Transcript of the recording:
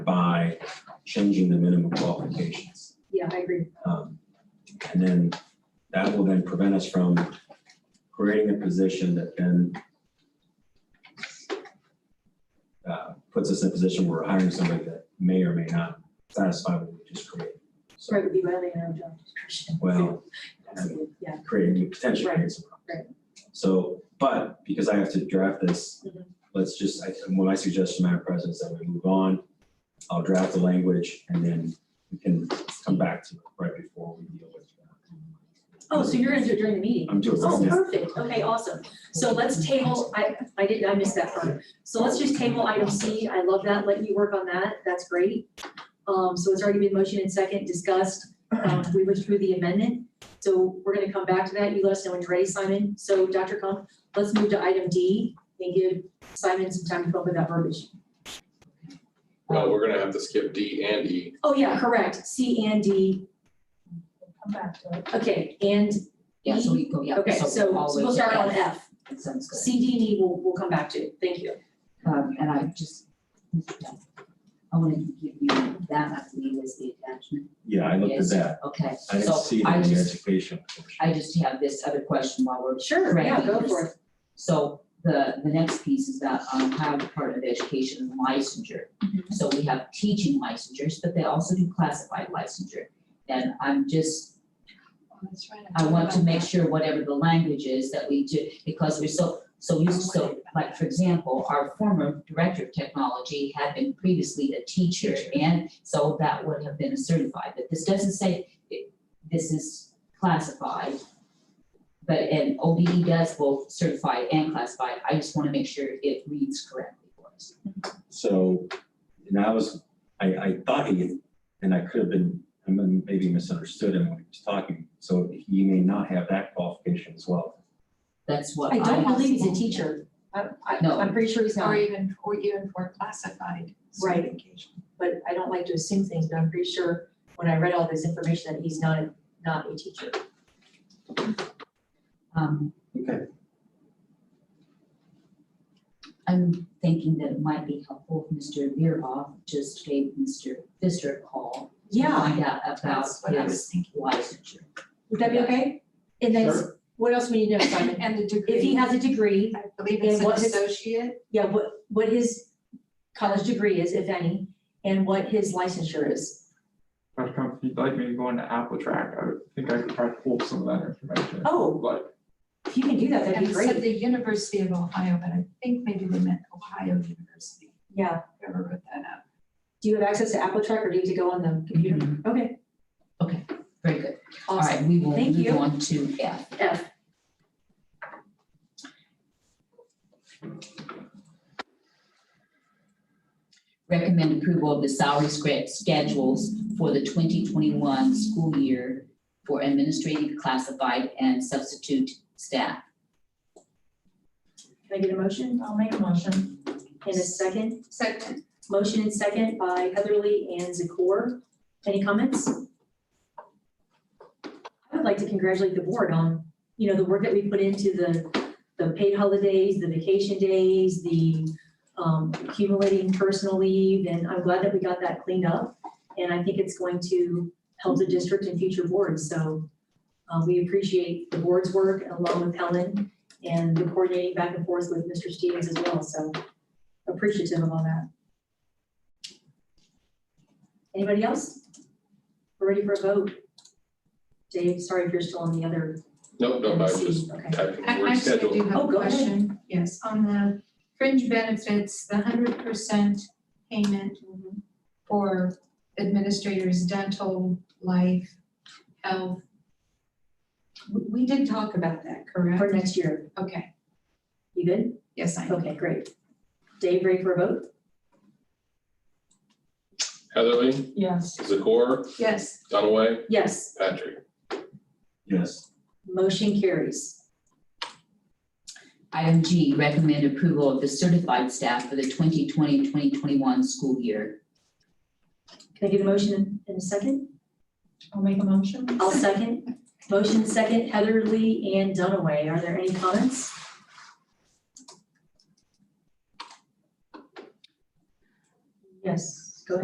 by changing the minimum qualifications. Yeah, I agree. Um, And then that will then prevent us from creating a position that then uh, puts us in a position where we're hiring somebody that may or may not satisfy what we just created. Sorry, So, it would be violating our job description. well, Absolutely, Yeah, creating, you potentially create some Right, problems. So, but because I have to draft this, Mhm. let's just, I, well, my suggestion, Madam President, is that we move on. I'll draft the language and then we can come back to it right before we deal with. that. oh, so you're gonna do it during the meeting? I'm doing Oh, this. now. perfect, okay, awesome. So let's table, I, I did, I missed that part. So let's just table item C, I love that, let you work on that, that's great. Um, so it's already been motioned and second, discussed, um, we withdrew the amendment. So we're gonna come back to that, you let us know when you're ready, Simon. So Dr. Kump, let's move to item D and give Simon some time to come up with that verbiage. No, we're gonna have to skip D and E. Oh, yeah, correct, C and D, Come back to it. okay, and, Yeah, so we go, yeah. okay, so, so all we'll is- start on F. That Sounds good. C, D, and E, we'll, we'll come back to, thank you. Um, and I just, I want to give you that, I believe, is the attachment. Yeah, I looked at Yes. that. Okay, I didn't so see it I in the just, education. portion. I just have this other question while we're. Sure, yeah, go correcting for it. this. So the, the next piece is that, um, how Department of Education licensure. Mhm. So we have teaching licensures, but they also do classified licensure. And I'm just That's right. I want to make sure whatever the language is that we do, because we're so, so used to, so, like, for example, our former director of technology had been previously a teacher, and so that would have been a certified, but this doesn't say it- this is classified. But, and OBE does both certified and classified, I just wanna make sure it reads correctly for us. So, and I was, I, I thought he, and I could have been, I mean, maybe misunderstood him when he was talking. So he may not have that qualification as well. That's what I. I don't believe he's a teacher. I, I, No. I'm pretty sure he's Or not, even, or even for classified Right. certification. but I don't like to assume things, but I'm pretty sure when I read all this information that he's not, not a teacher. Um, Okay. I'm thinking that it might be helpful if Mr. Veeroff just gave Mr. Pfister a call. to Find out about That's what I was his thinking. licensure. Would that be okay? And then, Sure. what else we need to know, Simon? And the degree. If he has a degree, I believe it's and an what is- associate. yeah, what, what his college degree is, if any, and what his licensure is. Dr. Comp, if you'd like me to go into Apple Track, I would think I could probably pull some of that information. Oh, Like, if you can do that, that'd And be it said great. the University of Ohio, but I think maybe they meant Ohio University, Yeah. whoever wrote that up. Do you have access to Apple Track or do you have to go on the computer? Okay, Very good. Mm-hmm. All awesome. right, we will Thank you. move on to F. F. Recommend approval of the salary scra- schedules for the 2021 school year for administrative, classified, and substitute staff. Can I get a motion? I'll make a motion. In a second? Second, Motion and second by Heatherly and Zakor. Any comments? I would like to congratulate the board on, you know, the work that we put into the, the paid holidays, the vacation days, the um, accumulating personal leave, and I'm glad that we got that cleaned up. And I think it's going to help the district and future boards, so uh, we appreciate the board's work along with Helen and the coordinating back and forth with Mr. Stevens as well, so appreciative of all that. Anybody else? We're ready for a vote. Dave, sorry if you're still on the other. Nope, nope, I was just Okay. typing the I word actually schedule. do have Oh, a go ahead. question, yes, on the fringe benefits, the hundred percent payment for administrators, dental, life, health. We, we did talk about that, For correct? next year, Okay, you good? yes, I know. Okay, great. Dave, ready for a vote? Heatherly, Yes. Zakor, Yes. Dunaway, Yes, Patrick. Yes. motion carries. Item G, recommend approval of the certified staff for the 2020-2021 school year. Can I get a motion in- in a second? I'll make a motion. I'll second. Motion second, Heather Lee and Dunaway. Are there any comments? Yes.